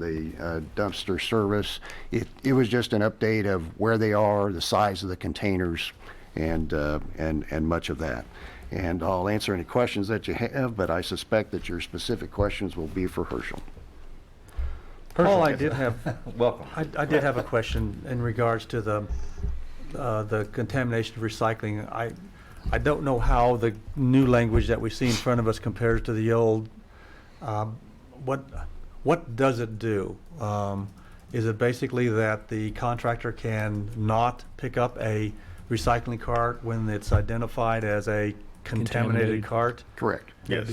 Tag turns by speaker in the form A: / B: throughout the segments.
A: the uh, dumpster service. It, it was just an update of where they are, the size of the containers, and, uh, and, and much of that. And I'll answer any questions that you have, but I suspect that your specific questions will be for Herschel.
B: Paul, I did have,
C: Welcome.
B: I, I did have a question in regards to the, uh, the contamination of recycling. I, I don't know how the new language that we see in front of us compares to the old. Um, What, what does it do? Um, Is it basically that the contractor can not pick up a recycling cart when it's identified as a contaminated
D: Contaminated.
B: cart?
A: Correct.
C: Yes,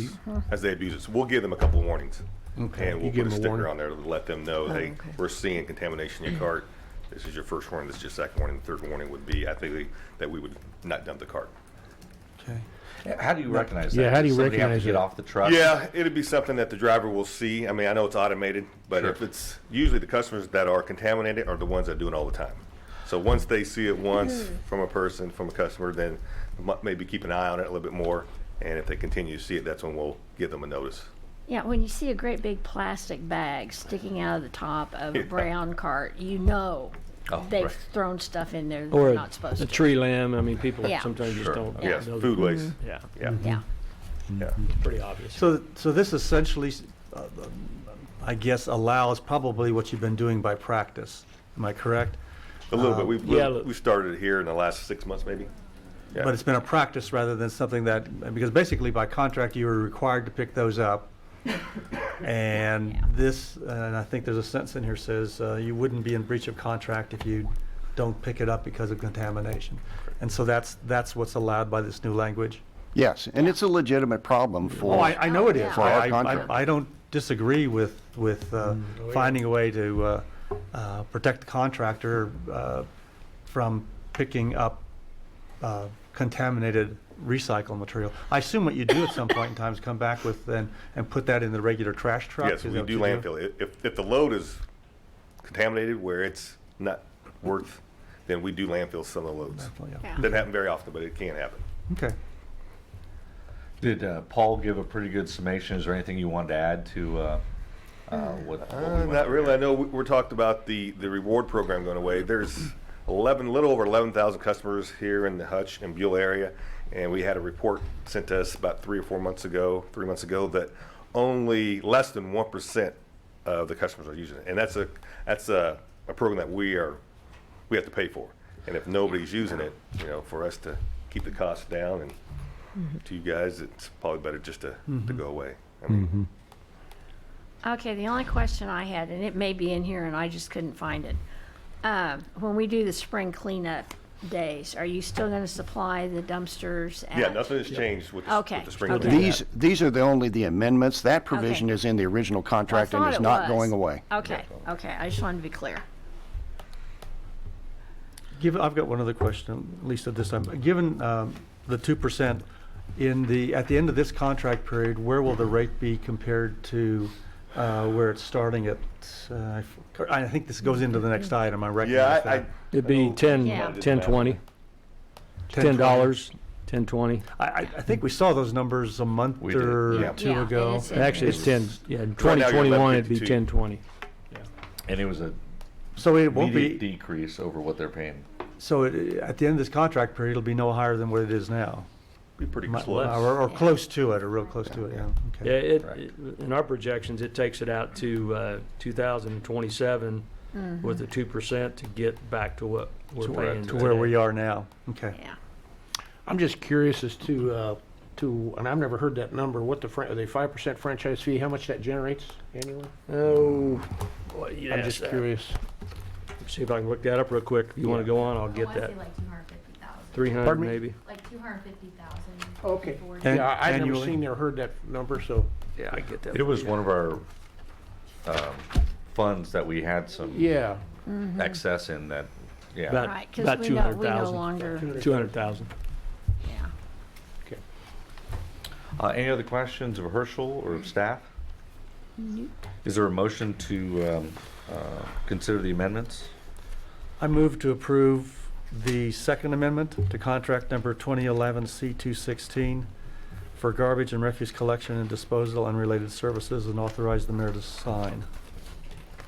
C: as they abuse it. So we'll give them a couple warnings.
B: Okay.
C: And
D: You
C: we'll
D: give
C: put a
D: them a
C: sticker
D: warning.
C: on there to let them know, hey,
E: okay.
C: we're seeing contamination in your cart. This is your first warning, this is your second warning. The third warning would be, I think, that we would not dump the cart.
B: Okay.
F: How do you recognize that?
D: Yeah, how do
F: Does
D: you
F: somebody have to
D: recognize
F: Get
D: it?
F: off the truck?
C: Yeah, Uh, it'd be something that the driver will see. I mean, I know it's automated, but if it's, usually the customers that are contaminated are the ones that do it all the time. So once they see it once from a person, from a customer, then mu- maybe keep an eye on it a little bit more. And if they continue to see it, that's when we'll give them a notice.
G: Yeah, when you see a great big plastic bag sticking out of the top of a
C: Yeah.
G: brown cart, you know
F: Oh,
G: they've
F: right.
G: thrown stuff in there
D: Or
G: they're
D: a,
G: not supposed
D: a
G: to.
D: tree limb. I mean, people
G: Yeah.
D: sometimes just
C: Sure.
D: don't.
C: Yes,
D: know the-
C: food waste.
D: Yeah,
C: Yeah.
B: Mm-hmm.
G: Yeah.
C: Yeah.
D: it's pretty obvious.
B: So, so this essentially, uh, I guess, allows probably what you've been doing by practice. Am I correct?
C: A little
B: Um,
C: bit. We've,
D: yeah,
C: we've-
D: look-
C: we've started it here in the last six months, maybe. Yeah.
B: But it's been a practice rather than something that, because basically by contract, you were required to pick those up. And this, and I think there's a sentence in here says, uh, you wouldn't be in breach of contract if you don't pick it up because of contamination. And so that's, that's what's allowed by this new language.
A: Yes, and it's a legitimate problem
B: Oh,
A: for,
B: I, I know it is.
G: For
A: our
B: I- I-
A: contract.
B: I don't disagree with, with uh, finding a way to uh, uh, protect the contractor uh, from picking up uh, contaminated recycled material. I assume what you do at some point in time is come back with, and, and put that in the regular trash truck?
C: Yes,
B: Is
C: we
B: that what
C: do
B: you
C: landfill. I- If, if the load is contaminated where it's not worth, then we do landfill some of the loads.
B: Landfill, yeah.
C: Doesn't happen very often, but it can happen.
B: Okay.
F: Did uh, Paul give a pretty good summation? Is there anything you wanted to add to uh, uh, what? what we
C: Uh,
F: went
C: Not
F: over?
C: really. I know we- we're talked about the, the reward program going away. There's 11, little over 11,000 customers here in the Hutch and Buell area. And we had a report sent to us about three or four months ago, three months ago, that only less than 1% of the customers are using it. And that's a, that's a, a program that we are, we have to pay for. And if nobody's using it, you know, for us to keep the costs down and to you guys, it's probably better just to, to go away. I mean,
G: Okay, the only question I had, and it may be in here and I just couldn't find it. Uh, When we do the spring cleanup days, are you still going to supply the dumpsters?
C: Yeah,
G: at-
C: nothing has changed with the,
G: Okay.
C: with the spring
G: Okay.
C: cleanup.
A: these, these are the only the amendments. That provision
G: Okay.
A: is in the original
G: I
A: contract and
G: thought
A: is
G: it
A: not
G: was.
A: going away.
G: Okay, okay, I just wanted to be clear.
B: Given, I've got one other question, at least at this time. Given um, the 2%, in the, at the end of this contract period, where will the rate be compared to uh, where it's starting at? uh, I f- I think this goes into the next item, I
C: Yeah,
B: recognize
C: I, I,
B: that.
D: It'd be ten,
G: Yeah.
D: ten, twenty, ten dollars, ten, twenty.
B: I, I I think we saw those numbers a month
F: We did,
B: or
C: yeah.
B: two
G: Yeah, it
B: ago.
G: is in there.
D: Actually, it's ten, yeah, in
C: you're
D: twenty
C: left
D: twenty-one, it'd be
C: 52.
D: ten, twenty.
F: And it was a
B: So it won't
F: immediate
B: be,
F: decrease over what they're paying.
B: so it- at the end of this contract period, it'll be no higher than what it is now.
C: be pretty
B: Or,
C: close.
B: or close to it, or real close to it, yeah.
D: Yeah,
B: Okay.
D: it,
F: Correct.
D: it- in our projections, it takes it out to, uh, two thousand and twenty-seven
G: Mm-hmm.
D: with the two percent to get back to what we're
B: To
D: paying
B: where- To where we
D: today.
B: are now, okay.
G: Yeah.
H: I'm just curious as to, uh, to, and I've never heard that number, what the, fran- the five percent franchise fee, how much that generates annually?
D: Oh, boy,
H: I'm
D: yes,
H: just
D: uh,
H: curious.
D: see if I can look that up real quick. If you wanna go on, I'll
I: I
G: Oh,
D: get
I: wanna
D: that.
I: say like two hundred fifty thousand.
D: Three hundred
H: Pardon me?
D: maybe.
I: Like two hundred fifty thousand.
H: Okay.
B: An-
H: Yeah, I- I've never
B: annually?
H: seen or heard that number, so,
D: Yeah, I get that.
F: It was one of our um, funds that we had some
H: yeah.
F: excess in that, yeah.
D: About-
G: Right, because
D: about
G: we no, we no
D: 200,000.
G: longer,
D: Two hundred thousand.
G: yeah.
F: Uh, Any other questions of Herschel or of staff? Is there a motion to um, uh, consider the amendments?
B: I move to approve the second amendment to contract number 2011 C216 for garbage and refuse collection and disposal and related services and authorize the mayor to sign.